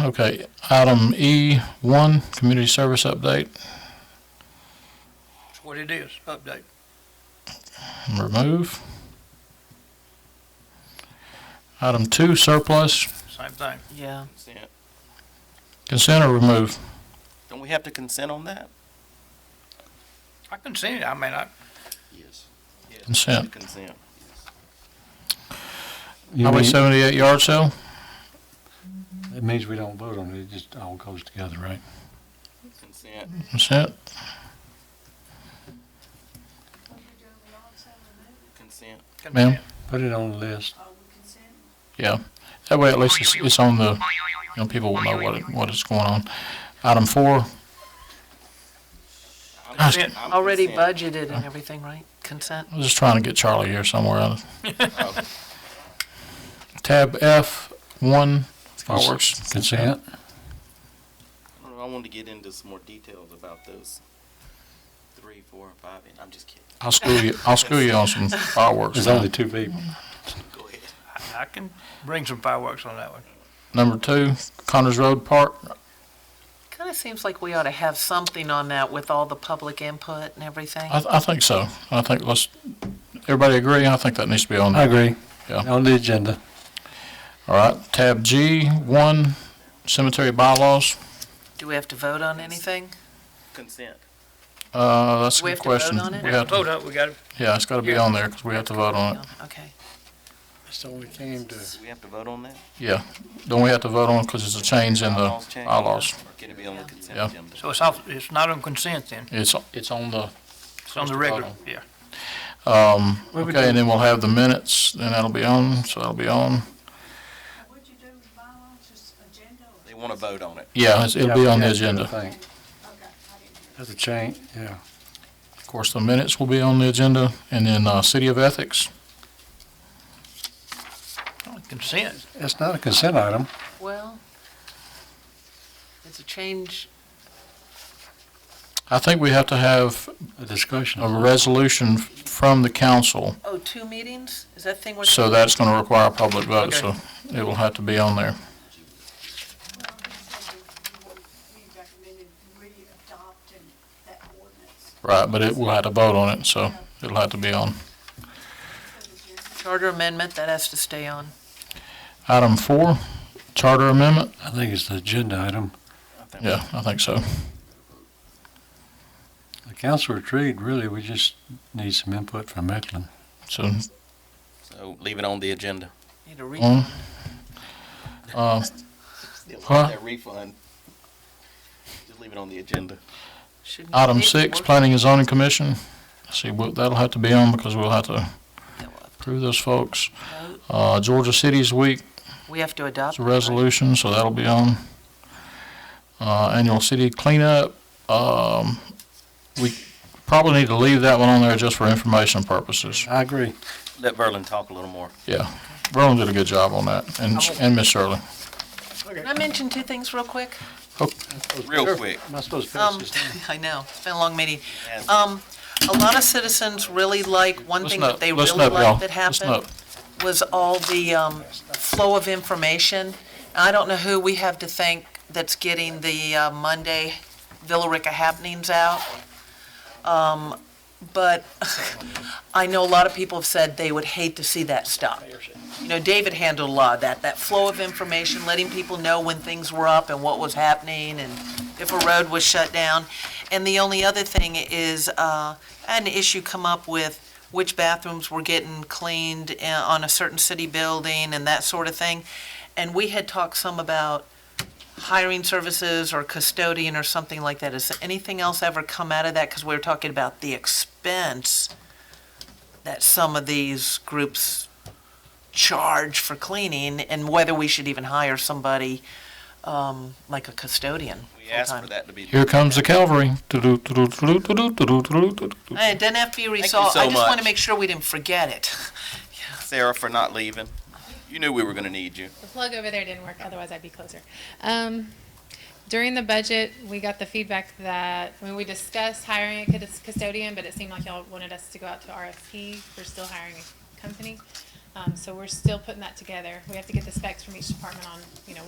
Okay, item E one, community service update, That's what it is, update. remove. Item two, surplus, Same thing. Yeah, Consent. consent or remove? Don't we have to consent on that? I can see it. I mean, I, Yes. Consent. Consent. You Highway mean- seventy-eight yard sale? It means we don't vote on it, it just all goes together, right? Consent. Consent, Consent. can see ma'am? it. Put it on the list. Yeah, that way at least it's, it's on the, you know, people will know what, it- what is going on. Item four, I'm Gosh. consent. I'm already consent. budgeted and everything, right? Consent? I was just trying to get Charlie here somewhere. Tab F one, fireworks. Consent? I don't know, I wanted to get into some more details about those three, four, and five, and I'm just kidding. I'll school you, I'll school you on some fireworks. There's only two people. Go ahead. I- I can bring some fireworks on that one. Number two, Connors Road Park, Kind of seems like we ought to have something on that with all the public input and everything. I, I think so. I think let's, everybody agree? I think that needs to be on I there. agree. Yeah. On the agenda. All right, tab G, one, cemetery bylaws. Do we have to vote on anything? Consent. Uh, that's a We good have to vote question. on it? We have to- Hold up, we got it. Yeah, it's gotta be Yeah. on there, cause we have to vote on it. Okay. So we came to. Do we have to vote on that? Yeah, don't we have to vote on it, cause it's a change in the Bylaws change? bylaws? Or Can it be on the consent Uh-huh. Yeah. agenda? So it's off, it's not on consent then. It's, it's on the, It's on the regular, yeah. um, What would okay, you- and then we'll have the minutes, then that'll be on, so that'll be on. What'd Uh, you do with bylaws, just agenda or? They want to vote on it. Yeah, it's- it'll be on the agenda. That's a change, yeah. Of course, the minutes will be on the agenda, and then, uh, City of Ethics. Consent. It's not a consent item. Well, it's a change. I think we have to have A discussion. a resolution f- from the council, Oh, two meetings? Is that thing we're? so that's gonna require a public vote, Okay. so it will have to be on there. Well, he said that you would, he recommended re-adopting that ordinance Right, but it will have to vote on it, so it'll have to be on. for the year. Charter amendment, that has to stay on. Item four, charter amendment. I think it's the agenda item. Yeah, I think so. The council retreat, really, we just need some input from Mecklen. So, So leave it on the agenda. Need a re, on. Uh, Still Huh? want that refund. Just leave it on the agenda. shouldn't. we Item need to six, work- planning and zoning commission. See, we'll- that'll have to be on because we'll have to that we'll have approve those folks. to vote. Uh, Georgia Cities Week, We have to adopt. it's a it, right? resolution, so that'll be on. Uh, annual city cleanup, um, we probably need to leave that one on there just for information purposes. I agree. Let Verlin talk a little more. Yeah, Verlin did a good job on that, and, and Miss Shirley. Can I mention two things real quick? Real quick. Am I supposed to pass Um, this down? I know, it's been a long meeting. Yes. Um, a lot of citizens really like, one thing Listen that up, they listen really up, y'all. liked that Listen happened up. was all the, um, flow of information. I don't know who we have to thank that's getting the, uh, Monday Villarica happenings out. Um, but I know a lot of people have said they would hate to see that stop. You know, David handled a lot of that, that flow of information, letting people know when things were up and what was happening and if a road was shut down. And the only other thing is, uh, I had an issue come up with which bathrooms were getting cleaned uh, on a certain city building and that sort of thing. And we had talked some about hiring services or custodian or something like that. Has anything else ever come out of that? Because we were talking about the expense that some of these groups charge for cleaning and whether we should even hire somebody, um, like a custodian. We asked for full-time. that to be. Here comes the cavalry. Do-do-do-do-do-do-do-do-do-do-do-do. Hey, It doesn't have to be you resolved. so I just want much. to make sure we didn't forget it. Sarah for not leaving. You knew we were going to need you. The plug over there didn't work, otherwise I'd be closer. Um, during the budget, we got the feedback that, I mean, we discussed hiring a cus- custodian, but it seemed like y'all wanted us to go out to RFP. We're still hiring a company. Um, so we're still putting that together. We have to get the specs from each department on, you know,